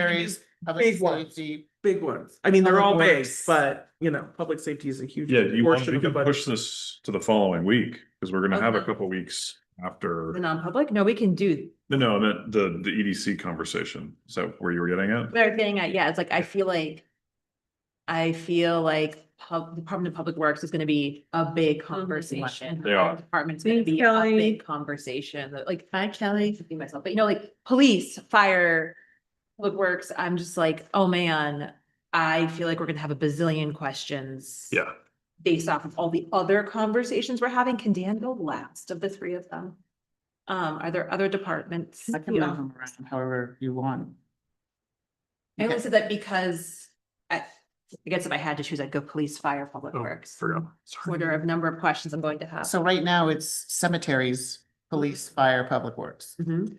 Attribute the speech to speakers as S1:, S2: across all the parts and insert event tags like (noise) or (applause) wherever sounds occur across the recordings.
S1: Areas of
S2: Big one.
S1: safety.
S2: big ones. I mean, they're all
S1: Public
S2: big,
S1: works.
S2: but you know, public safety is a huge.
S3: Yeah, do you want,
S2: portion
S3: we
S2: of the
S3: can
S2: budget.
S3: push this to the following week, because we're gonna have a
S1: Okay.
S3: couple weeks after,
S4: The non-public? No, we can do,
S3: no, no, I meant the, the EDC conversation. Is that where you were getting at?
S4: we're getting at, yeah, it's like, I feel like. I feel like pub, the Department of Public Works is gonna be a big conversation.
S3: They are.
S4: Department's gonna
S2: Thanks,
S4: be a
S2: Kelly.
S4: big conversation, like, hi Kelly, to be myself, but you know, like, police, fire. Public Works, I'm just like, oh man, I feel like we're gonna have a bazillion questions.
S3: Yeah,
S4: based off of all the other conversations we're having, can Dan go last of the three of them? Um, are there other departments?
S1: I can move them around however you want.
S4: I only
S1: Okay.
S4: said that because I, I guess if I had to choose, I'd go police, fire, public
S3: Oh,
S4: works.
S3: forgot.
S4: Order of number of questions I'm going to have.
S1: So right now it's cemeteries, police, fire, public works,
S2: Mm-hmm.
S4: Mhm.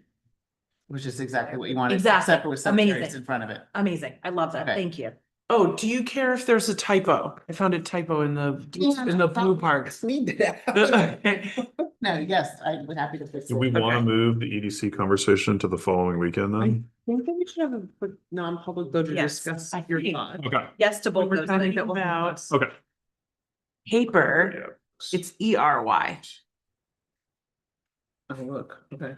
S1: which is exactly what you wanted.
S4: Exactly.
S1: Except with cemeteries
S4: Amazing.
S1: in front of it.
S4: Amazing. I love that.
S1: Okay.
S4: Thank you.
S2: Oh, do you care if there's a typo? I found a typo in the,
S1: Yeah,
S2: in the
S1: that
S2: blue
S1: was-
S2: parks.
S1: Need that.
S2: (laughs) I
S1: (laughs) No, yes, I would happy to fix it.
S3: Do we want to
S1: Okay.
S3: move the EDC conversation to the following weekend then?
S2: think that we should have a quick non-public though to
S4: Yes,
S2: discuss
S4: I
S2: your
S4: think-
S2: thoughts.
S3: Okay,
S4: Yes to
S2: When
S4: both
S2: we're
S4: those. I think
S2: talking
S4: that will-
S2: about
S3: okay.
S2: paper,
S3: Yeah.
S2: it's E R Y. Oh, look, okay.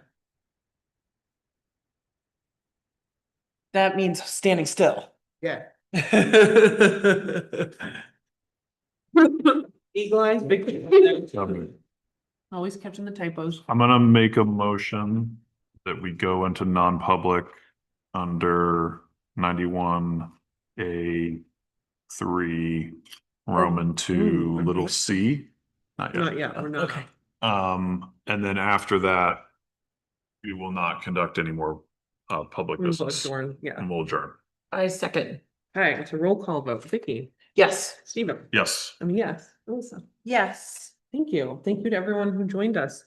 S2: That means standing still. (laughs)
S1: Yeah.
S2: Eagle eyes, big.
S3: Um,
S2: Always catching the typos.
S3: I'm gonna make a motion that we go into non-public under ninety-one A three, Roman two,
S2: Ooh.
S3: little c. Not yet.
S2: Hmm. Not yet, we're not.
S4: Okay.
S3: Um, and then after that, we will not conduct any more uh public
S2: We're both
S3: business
S2: sworn, Yeah.
S3: and we'll adjourn.
S5: I second.
S2: Alright, it's a roll call vote. Vicky,
S5: Yes.
S2: Stephen,
S3: Yes.
S2: I mean, yes, Melissa.
S4: Yes.
S2: Thank you. Thank you to everyone who joined us.